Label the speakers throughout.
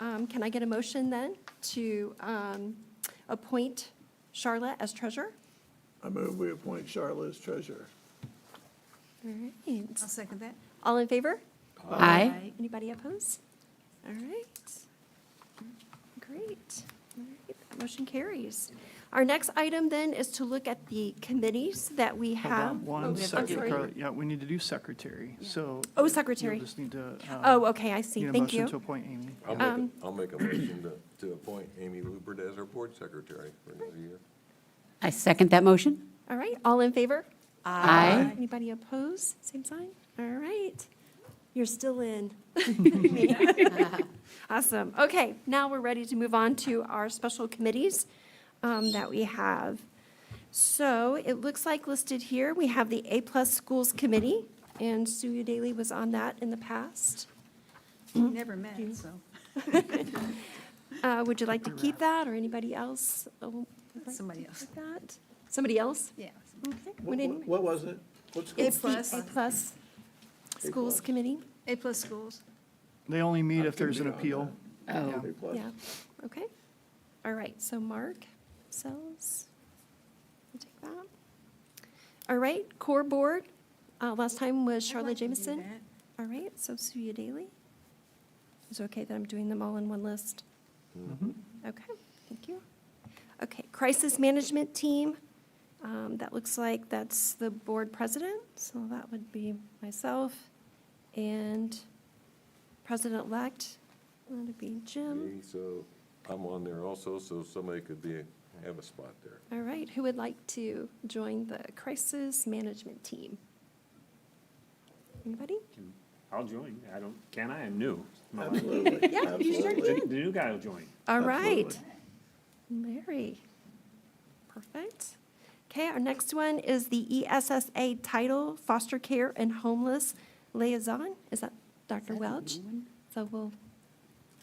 Speaker 1: Um, Can I get a motion then to um, appoint Charlotte as treasurer?
Speaker 2: I move we appoint Charlotte as treasurer.
Speaker 1: All right.
Speaker 3: I'll second that.
Speaker 1: All in favor?
Speaker 4: Aye.
Speaker 1: Anybody opposed? All right. Great. All right, that Motion carries. Our next item then is to look at the committees that we
Speaker 5: Hold on
Speaker 1: have. Oh,
Speaker 5: One
Speaker 1: I'm
Speaker 5: second,
Speaker 1: sorry.
Speaker 5: Carla. yeah, we need to do secretary, so.
Speaker 1: Oh,
Speaker 5: you'll
Speaker 1: secretary.
Speaker 5: just need to. uh,
Speaker 1: Oh, okay, I see.
Speaker 5: need a
Speaker 1: Thank
Speaker 5: motion To
Speaker 1: you.
Speaker 5: appoint Amy.
Speaker 6: I'll make,
Speaker 1: Um,
Speaker 6: a- I'll make a motion to, to appoint Amy Lupert as our board secretary for another year.
Speaker 4: I second that motion.
Speaker 1: All right, all in favor?
Speaker 4: Aye.
Speaker 1: Anybody opposed? Same sign? All right. You're still in. Awesome. Okay, now we're ready to move on to our special committees um, that we have. So it looks like listed here, we have the A-plus Schools Committee, and Sue Daly was on that in the past. Mm-hmm.
Speaker 3: Never met, so.
Speaker 1: Uh, Would you like to keep that, or anybody else? uh, would like
Speaker 3: Somebody
Speaker 1: to
Speaker 3: else.
Speaker 1: keep that? Somebody else?
Speaker 3: Yeah.
Speaker 1: Okay.
Speaker 2: What
Speaker 1: would any-
Speaker 2: what was it? What's
Speaker 1: It's the
Speaker 3: plus.
Speaker 1: A-plus Schools Committee.
Speaker 3: A-plus schools.
Speaker 5: They only meet if
Speaker 2: can
Speaker 5: there's
Speaker 2: be
Speaker 5: an
Speaker 2: on
Speaker 5: appeal.
Speaker 4: Oh,
Speaker 2: A plus?
Speaker 1: Yeah, okay. All right, so Mark, sells. we'll take that. All right, core board, uh, last time was
Speaker 3: I'd
Speaker 1: Charlotte
Speaker 3: like to do
Speaker 1: Jameson.
Speaker 3: that.
Speaker 1: All right, so Suya Daly. Is it okay that I'm doing them all in one list? Okay, thank you. Okay, crisis management team, um, that looks like that's the board president, so that would be myself. And president-elect, that would be Jim.
Speaker 6: Me, So I'm on there also, so somebody could be, have a spot there.
Speaker 1: All right, who would like to join the crisis management team? Anybody?
Speaker 7: I'll join. I don't, can I? I'm new. My wife-
Speaker 2: Absolutely.
Speaker 1: Yeah, you sure
Speaker 2: absolutely.
Speaker 7: The the new guy will join.
Speaker 1: All right.
Speaker 2: Absolutely.
Speaker 1: Mary. Perfect. Okay, our next one is the E ESSA title, Foster Care and Homeless Liaison. Is that Dr. Welch? So we'll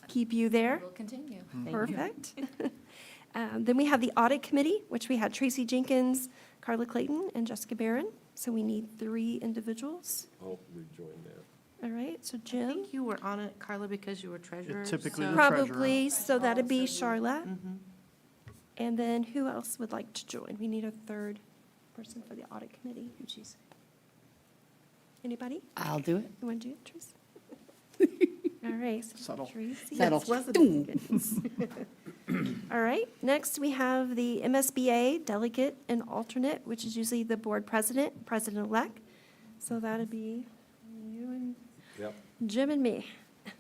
Speaker 1: keep you there.
Speaker 8: We'll continue.
Speaker 1: Perfect. Um, Then we have the Audit Committee, which we had Tracy Jenkins, Carla Clayton, and Jessica Barron. So we need three individuals.
Speaker 6: I'll rejoin Oh, that.
Speaker 1: All right, so
Speaker 8: I
Speaker 1: Jim,
Speaker 8: think you were on it, Carla, because you were treasurer.
Speaker 5: typically
Speaker 8: so-
Speaker 5: the treasurer. Mm-hmm.
Speaker 1: probably, so that'd be
Speaker 8: Also, you-
Speaker 1: Charlotte. And then who else would like to join? We need a third person for the audit committee. Anybody?
Speaker 4: I'll do it.
Speaker 1: You want to do it, Teresa? All right. so
Speaker 5: Subtle.
Speaker 1: Tracy.
Speaker 4: Settle. Doom.
Speaker 1: Goodness. All right, next we have the MSBA delegate and alternate, which is usually the board president, president-elect. So that'd be you and
Speaker 6: Yep.
Speaker 1: Jim and me. All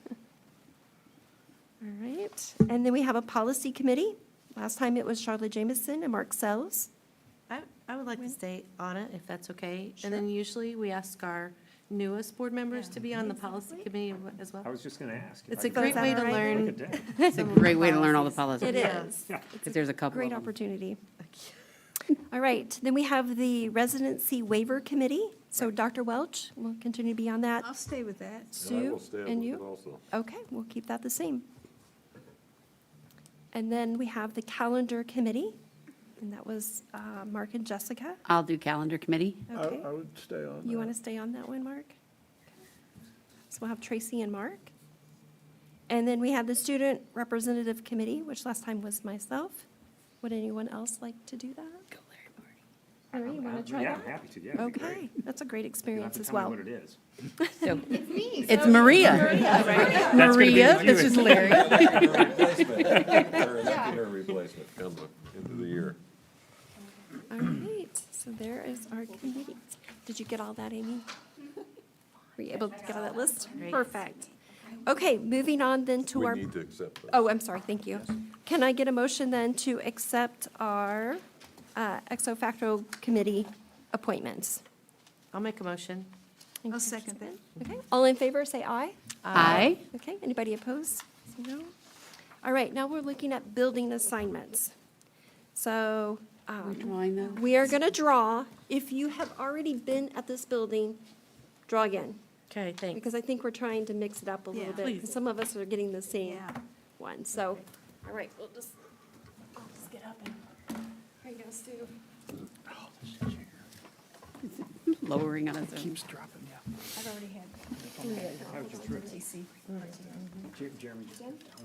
Speaker 1: right, and then we have a policy committee. Last time it was Charlotte Jameson and Mark Sells.
Speaker 8: I, I would like to
Speaker 1: When-
Speaker 8: stay on it, if that's okay. And then usually we ask our newest board members to be on the policy committee as
Speaker 7: I
Speaker 8: well.
Speaker 7: was just gonna ask. if
Speaker 8: It's
Speaker 7: I
Speaker 8: a
Speaker 7: could
Speaker 8: great
Speaker 1: that
Speaker 8: way to
Speaker 1: all right?
Speaker 7: take a
Speaker 8: learn.
Speaker 7: day.
Speaker 4: It's a great way to learn all the policies.
Speaker 1: It is.
Speaker 4: Because there's a couple
Speaker 1: Great
Speaker 4: of them.
Speaker 1: opportunity. All right, then we have the residency waiver committee. So Dr. Welch will continue to be on that.
Speaker 3: I'll stay with that.
Speaker 6: And I
Speaker 1: Sue
Speaker 6: will stay
Speaker 1: and
Speaker 6: with it
Speaker 1: you?
Speaker 6: also.
Speaker 1: Okay, we'll keep that the same. And then we have the calendar committee, and that was uh, Mark and Jessica.
Speaker 4: I'll do calendar committee.
Speaker 2: I
Speaker 1: Okay.
Speaker 2: I would stay on
Speaker 1: You want to
Speaker 2: that.
Speaker 1: stay on that one, Mark? So we'll have Tracy and Mark. And then we had the Student Representative Committee, which last time was myself. Would anyone else like to do that? Larry, you want to try
Speaker 7: Uh, Yeah, I'm
Speaker 1: that?
Speaker 7: happy to, yeah. that'd be great.
Speaker 1: Okay, that's a great
Speaker 7: You'll have
Speaker 1: experience
Speaker 7: to
Speaker 1: as
Speaker 7: tell me
Speaker 1: well.
Speaker 7: what it is.
Speaker 4: So It's Maria.
Speaker 7: That's gonna be
Speaker 4: Maria,
Speaker 7: my
Speaker 4: this
Speaker 7: new-
Speaker 4: is Larry.
Speaker 6: Electing her replacement. Her electing her replacement comes up into the year.
Speaker 1: All right, so there is our committee. Did you get all that, Amy? Were you able to get all that list? Perfect. Okay, moving on then to
Speaker 6: We
Speaker 1: our.
Speaker 6: need to accept that.
Speaker 1: Oh, I'm sorry, thank you. Can I get a motion then to accept our uh, ex officio committee appointments?
Speaker 8: I'll make a motion.
Speaker 1: Thank you,
Speaker 3: I'll second
Speaker 1: Jessica. Okay, all in favor, say aye.
Speaker 4: Aye.
Speaker 1: Okay, anybody opposed? Say No? All right, now we're looking at building assignments. So um,
Speaker 4: We're drawing those.
Speaker 1: we are going to draw. If you have already been at this building, draw again.
Speaker 8: Okay, thanks.
Speaker 1: Because I think we're trying to mix it up a
Speaker 3: Yeah.
Speaker 1: little bit. 'cause
Speaker 8: Please.
Speaker 1: Some of us are getting the same
Speaker 3: Yeah.
Speaker 1: one, so, all right, we'll just, I'll just get up and, here you go, Sue.
Speaker 4: Lowering on its own.
Speaker 5: dropping, yeah.
Speaker 3: I've already had.
Speaker 7: Jer- Jeremy just